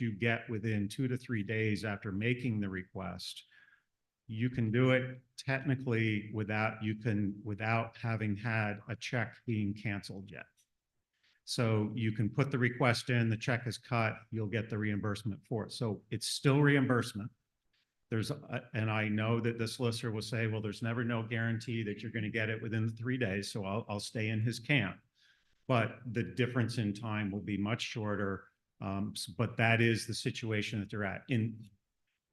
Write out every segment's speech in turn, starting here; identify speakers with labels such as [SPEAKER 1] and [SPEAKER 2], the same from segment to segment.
[SPEAKER 1] you get within two to three days after making the request, you can do it technically without, you can, without having had a check being canceled yet. So you can put the request in, the check is cut, you'll get the reimbursement for it. So it's still reimbursement. There's, a- and I know that the solicitor will say, well, there's never no guarantee that you're going to get it within the three days, so I'll, I'll stay in his camp. But the difference in time will be much shorter. Um, s- but that is the situation that they're at. In,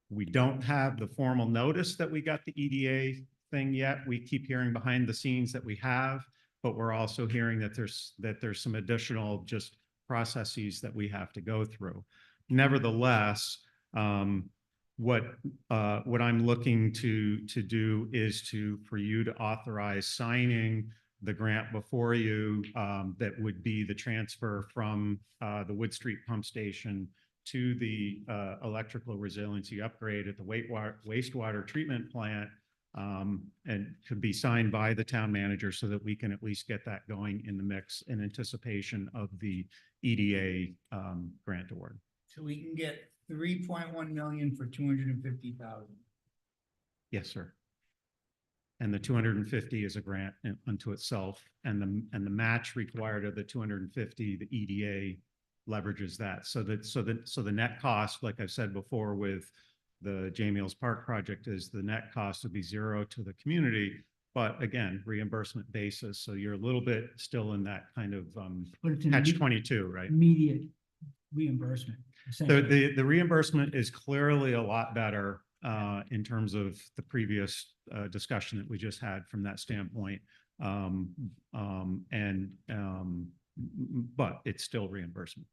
[SPEAKER 1] we don't have the formal notice that we got the EDA thing yet. We keep hearing behind the scenes that we have, but we're also hearing that there's, that there's some additional just processes that we have to go through. Nevertheless, um, what, uh, what I'm looking to, to do is to, for you to authorize signing the grant before you, um, that would be the transfer from, uh, the Wood Street Pump Station to the uh, electrical resiliency upgrade at the wastewater, wastewater treatment plant. um, And could be signed by the town manager so that we can at least get that going in the mix in anticipation of the EDA um, grant award.
[SPEAKER 2] So we can get three point one million for two hundred and fifty thousand.
[SPEAKER 1] Yes, sir. And the two hundred and fifty is a grant in- unto itself and the, and the match required of the two hundred and fifty, the EDA leverages that. So that, so that, so the net cost, like I've said before with the Jamie Mills Park project is the net cost would be zero to the community. But again, reimbursement basis. So you're a little bit still in that kind of um,
[SPEAKER 2] But it's an
[SPEAKER 1] catch
[SPEAKER 2] imme-
[SPEAKER 1] twenty-two, right?
[SPEAKER 2] immediate reimbursement.
[SPEAKER 1] So
[SPEAKER 2] essentially.
[SPEAKER 1] the, the reimbursement is clearly a lot better uh, in terms of the previous uh, discussion that we just had from that standpoint. Um, um, And, um, m- m- but it's still reimbursement.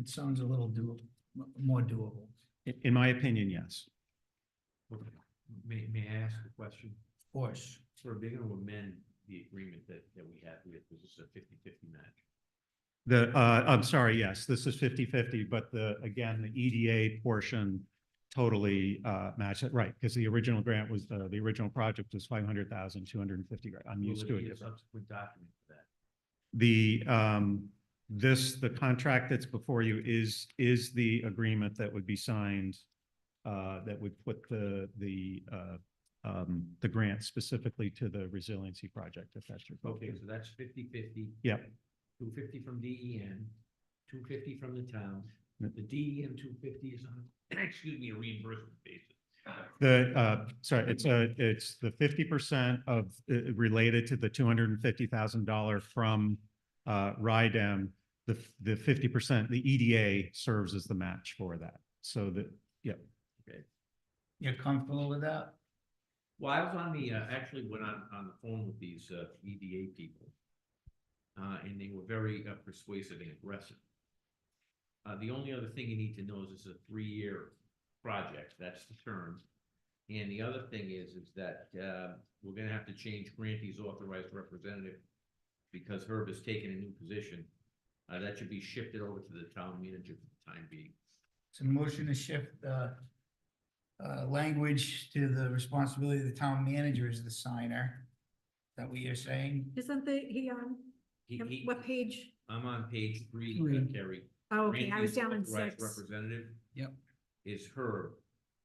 [SPEAKER 2] It sounds a little doable, m- more doable.
[SPEAKER 1] I- In my opinion, yes.
[SPEAKER 3] May, may I ask a question?
[SPEAKER 2] Of course,
[SPEAKER 3] So are they gonna amend the agreement that, that we have with, this is a fifty-fifty match?
[SPEAKER 1] The, uh, I'm sorry, yes, this is 50-50, but the, again, the EDA portion totally uh, matched it, right? Because the original grant was, uh, the original project was 500,250. grand. I'm
[SPEAKER 3] Will
[SPEAKER 1] used
[SPEAKER 3] there
[SPEAKER 1] to
[SPEAKER 3] be
[SPEAKER 1] it.
[SPEAKER 3] a Subsequent document for that.
[SPEAKER 1] The, um, this, the contract that's before you is, is the agreement that would be signed, uh, that would put the, the, uh, um, the grant specifically to the resiliency project, if that's your
[SPEAKER 3] Okay,
[SPEAKER 1] focus.
[SPEAKER 3] so that's fifty-fifty.
[SPEAKER 1] Yep.
[SPEAKER 3] Two fifty from E DEN, two fifty from the town.
[SPEAKER 1] Yep.
[SPEAKER 3] The DEN two fifty is on, excuse me, a reimbursement basis.
[SPEAKER 1] The, uh, sorry, it's a, it's the fifty percent of, uh, related to the two hundred and fifty thousand dollar from, uh, RIDEM. The, f- the fifty percent, the EDA serves as the match for that. So that,
[SPEAKER 2] you're comfortable with that?
[SPEAKER 3] Well, I was on the, uh, actually went on, on the phone with these, uh, EDA people. Uh, and they were very uh, persuasive and aggressive. Uh, the only other thing you need to know is it's a three-year project, that's the term. And the other thing is, is that, uh, we're gonna have to change Grantee's authorized representative because Herb has taken a new position. Uh, that should be shifted over to the town manager for the time being.
[SPEAKER 2] So motion to shift the uh, language to the responsibility of the town manager as the signer. Is That what you're saying?
[SPEAKER 4] Isn't the, he on,
[SPEAKER 3] He,
[SPEAKER 4] him-
[SPEAKER 3] he,
[SPEAKER 4] what page?
[SPEAKER 3] I'm on page three,
[SPEAKER 2] Three.
[SPEAKER 3] uh, Carrie.
[SPEAKER 4] Oh, okay, I
[SPEAKER 3] Randy's
[SPEAKER 4] was down in
[SPEAKER 3] authorized
[SPEAKER 4] six.
[SPEAKER 3] Representative.
[SPEAKER 2] Yep.
[SPEAKER 3] Is her.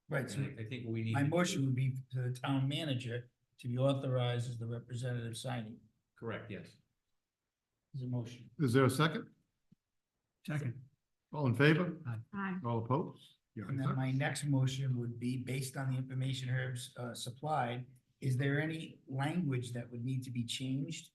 [SPEAKER 2] Right, so
[SPEAKER 3] I I think we need.
[SPEAKER 2] my
[SPEAKER 3] to do-
[SPEAKER 2] motion would be to the town manager to be authorized as the representative signing.
[SPEAKER 3] Correct, yes.
[SPEAKER 2] Is a motion.
[SPEAKER 5] Is there a second?
[SPEAKER 2] Second.
[SPEAKER 5] All in favor?
[SPEAKER 4] Aye.
[SPEAKER 5] All opposed? Yeah,
[SPEAKER 2] And then my next motion would be based on the information Herb's uh, supplied. Is there any language that would need to be changed?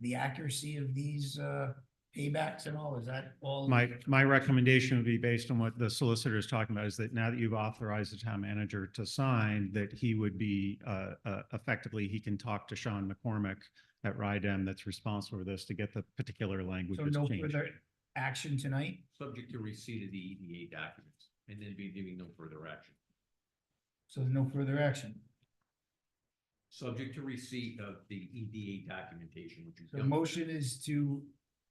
[SPEAKER 2] The accuracy of these uh, paybacks and all, is that all?
[SPEAKER 1] My, my recommendation would be based on what the solicitor is talking about, is that now that you've authorized the town manager to sign, that he would be, uh, uh, effectively, he can talk to Sean McCormick at RIDEM that's responsible for this to get the particular language
[SPEAKER 2] So no
[SPEAKER 1] changed.
[SPEAKER 2] further action tonight?
[SPEAKER 3] Subject to receipt of the EDA documents and then be giving no further action.
[SPEAKER 2] So there's no further action.
[SPEAKER 3] Subject to receipt of the EDA documentation, which is.
[SPEAKER 2] So the motion is to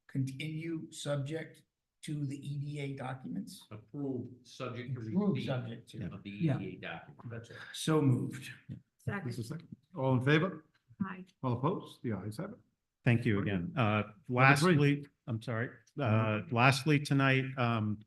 [SPEAKER 2] continue subject to the EDA documents?
[SPEAKER 3] Approved, subject to
[SPEAKER 2] Approved
[SPEAKER 3] receipt
[SPEAKER 2] subject to.
[SPEAKER 3] of the E
[SPEAKER 2] Yeah.
[SPEAKER 3] EDA document. That's it.
[SPEAKER 2] So moved.
[SPEAKER 5] Is there a
[SPEAKER 4] Second,
[SPEAKER 5] second? All in favor?
[SPEAKER 4] aye.
[SPEAKER 5] All opposed? The ayes have it.
[SPEAKER 1] Thank you
[SPEAKER 5] Very
[SPEAKER 1] again. Uh,
[SPEAKER 5] Number three.
[SPEAKER 1] lastly, I'm sorry, uh, lastly, tonight, um,